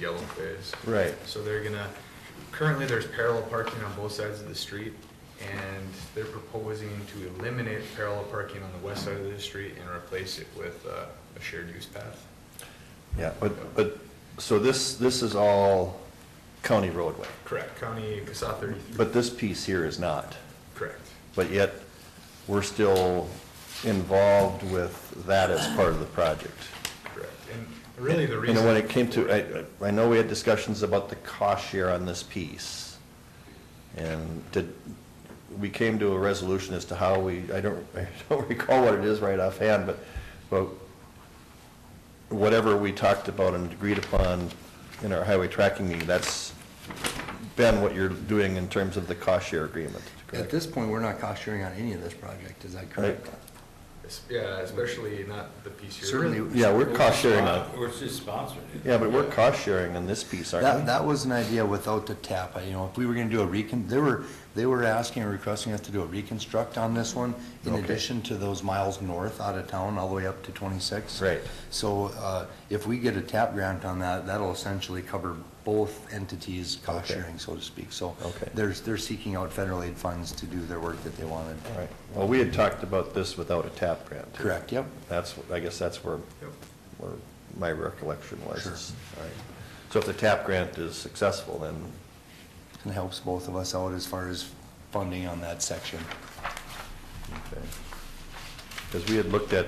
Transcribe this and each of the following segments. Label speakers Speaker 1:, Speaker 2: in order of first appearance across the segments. Speaker 1: yellow phase.
Speaker 2: Right.
Speaker 1: So they're gonna, currently there's parallel parking on both sides of the street, and they're proposing to eliminate parallel parking on the west side of the street and replace it with uh, a shared use path.
Speaker 2: Yeah, but, but, so this, this is all county roadway,
Speaker 1: Correct, County Casa thirty-three,
Speaker 2: but this piece here is not.
Speaker 1: correct.
Speaker 2: But yet, we're still involved with that as part of the project.
Speaker 1: Correct. And really the
Speaker 2: You
Speaker 1: reason.
Speaker 2: know, when it came to, I, I know we had discussions about the cost share on this piece. And did, we came to a resolution as to how we, I don't, I don't recall what it is right offhand, but, but whatever we talked about and agreed upon in our highway tracking meeting, that's been what you're doing in terms of the cost share agreement,
Speaker 3: At
Speaker 2: correct?
Speaker 3: this point, we're not cost sharing on any of this project, is that correct?
Speaker 2: Right.
Speaker 1: Es- Yeah, especially not the piece here.
Speaker 3: Certainly,
Speaker 2: Yeah, we're cost sharing on,
Speaker 4: Or it's just sponsored.
Speaker 2: yeah, but we're cost sharing on this piece, aren't
Speaker 3: that,
Speaker 2: we?
Speaker 3: that was an idea without the tap, I- you know, if we were gonna do a recon, they were, they were asking and requesting us to do a reconstruct on this one, in
Speaker 2: Okay.
Speaker 3: addition to those miles north out of town, all the way up to twenty-six.
Speaker 2: Right.
Speaker 3: So, uh, if we get a tap grant on that, that'll essentially cover both entities' cost
Speaker 2: Okay.
Speaker 3: sharing, so to speak, so.
Speaker 2: Okay.
Speaker 3: There's, they're seeking out federal aid funds to do their work that they wanted.
Speaker 2: All right, well, we had talked about this without a tap grant. too.
Speaker 3: Correct, yep.
Speaker 2: That's, I guess that's where,
Speaker 1: Yep.
Speaker 2: where my recollection was.
Speaker 3: Sure.
Speaker 2: All right. So if the TAP grant is successful, then,
Speaker 3: And helps both of us out as far as funding on that section.
Speaker 2: okay. Because we had looked at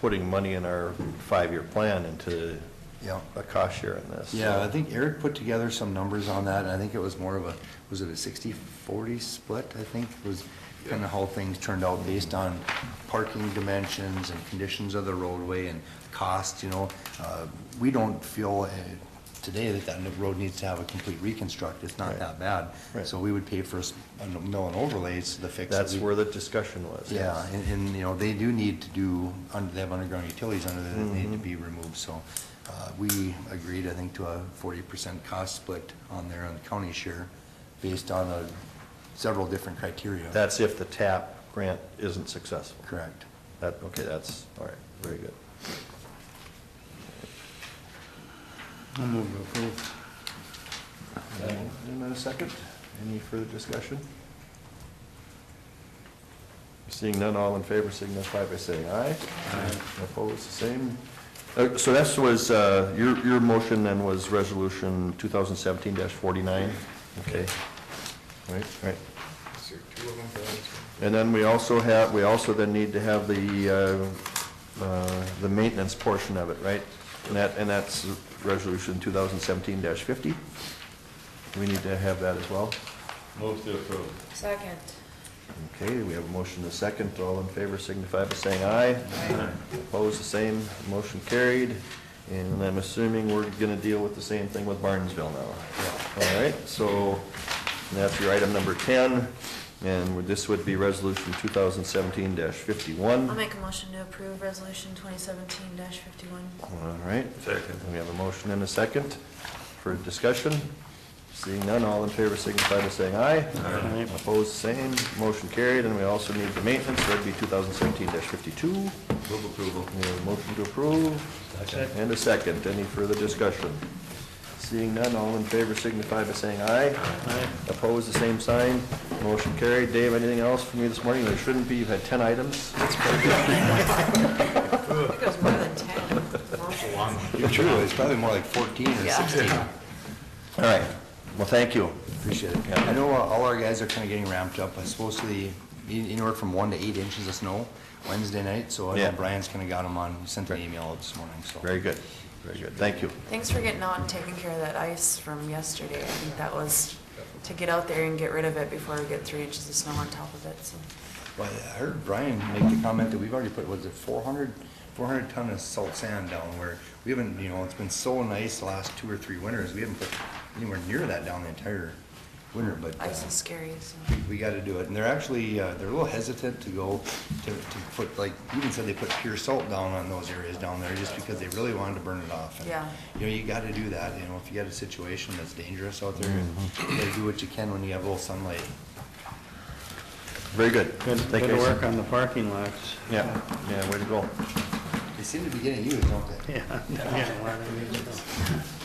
Speaker 2: putting money in our five-year plan into
Speaker 3: Yeah.
Speaker 2: a cost share in this.
Speaker 3: Yeah, I think Eric put together some numbers on that, and I think it was more of a, was it a 60-40 split, I think, was kind of how things turned out based on parking dimensions and conditions of the roadway and cost, you know. Uh, We don't feel uh, today that that road needs to have a complete reconstruct, it's not
Speaker 2: Right.
Speaker 3: that bad.
Speaker 2: Right.
Speaker 3: So we would pay for a s- a mill and overlays to fix it.
Speaker 2: That's where the discussion was.
Speaker 3: Yeah, and, and, you know, they do need to do, under- they have underground utilities under there that need to be removed, so uh, we agreed, I think, to a forty percent cost split on there on the county share, based on uh, several different criteria.
Speaker 2: That's if the TAP grant isn't successful.
Speaker 3: Correct.
Speaker 2: That, okay, that's, all right, very good. I'll move to approve. In a second, any further discussion? Seeing none, all in favor signify by saying aye. Aye. Opposed, the same. Uh, So that was, uh, your, your motion then was resolution 2017-49? Okay. All right, all right.
Speaker 1: So two of them for this one.
Speaker 2: And then we also have, we also then need to have the, uh, uh, the maintenance portion of it, right? And that, and that's resolution 2017-50. We need to have that as well.
Speaker 4: Move to approve.
Speaker 5: Second.
Speaker 2: Okay, we have a motion and a second. All in favor signify by saying aye.
Speaker 5: Aye.
Speaker 2: Opposed, the same. Motion carried. And I'm assuming we're gonna deal with the same thing with Barnesville now. All right, so that's your item number 10, and this would be resolution 2017-51.
Speaker 5: I'll make a motion to approve resolution twenty seventeen fifty-one.
Speaker 2: All right.
Speaker 4: Second.
Speaker 2: We have a motion and a second for discussion. Seeing none, all in favor signify by saying aye. Aye. Opposed, same. Motion carried, and we also need the maintenance, that'd be 2017-52. We
Speaker 4: Move approval.
Speaker 2: have a motion to approve. And a second. Any further discussion? Seeing none, all in favor signify by saying aye. Aye. Opposed, the same sign. Motion carried. Dave, anything else from you this morning? There shouldn't be, you've had 10 items.
Speaker 5: It goes more than ten.
Speaker 1: It's a long one.
Speaker 3: Truly, it's probably more like fourteen or
Speaker 5: Yeah.
Speaker 3: sixteen.
Speaker 2: All right. Well, thank you.
Speaker 3: Appreciate it. I know uh, all our guys are kind of getting ramped up. I suppose to the, anywhere from one to eight inches of snow Wednesday night, so I
Speaker 2: Yeah.
Speaker 3: know Brian's kind of got them on, sent an email out this morning, so.
Speaker 2: Very good. Very good. Thank you.
Speaker 5: Thanks for getting out and taking care of that ice from yesterday. I think that was to get out there and get rid of it before we get three inches of snow on top of it, so.
Speaker 3: Well, I heard Brian make the comment that we've already put, was it 400, 400 ton of salt sand down where we haven't, you know, it's been so nice the last two or three winters, we haven't put anywhere near that down the entire winter, but uh,
Speaker 5: Ice is scary,
Speaker 3: we-
Speaker 5: so.
Speaker 3: we gotta do it. And they're actually, uh, they're a little hesitant to go to, to put, like, even said they put pure salt down on those areas down there just because they really wanted to burn it off. And,
Speaker 5: Yeah.
Speaker 3: You know, you gotta do that, you know, if you got a situation that's dangerous out there, you gotta do what you can when you have a little sunlight.
Speaker 2: Very good.
Speaker 6: Good,
Speaker 2: Thank
Speaker 6: good
Speaker 2: you.
Speaker 6: work on the parking lots.
Speaker 2: Yeah, yeah, way to go.
Speaker 3: They seem to be getting used, don't they?
Speaker 6: Yeah, yeah, a lot of these.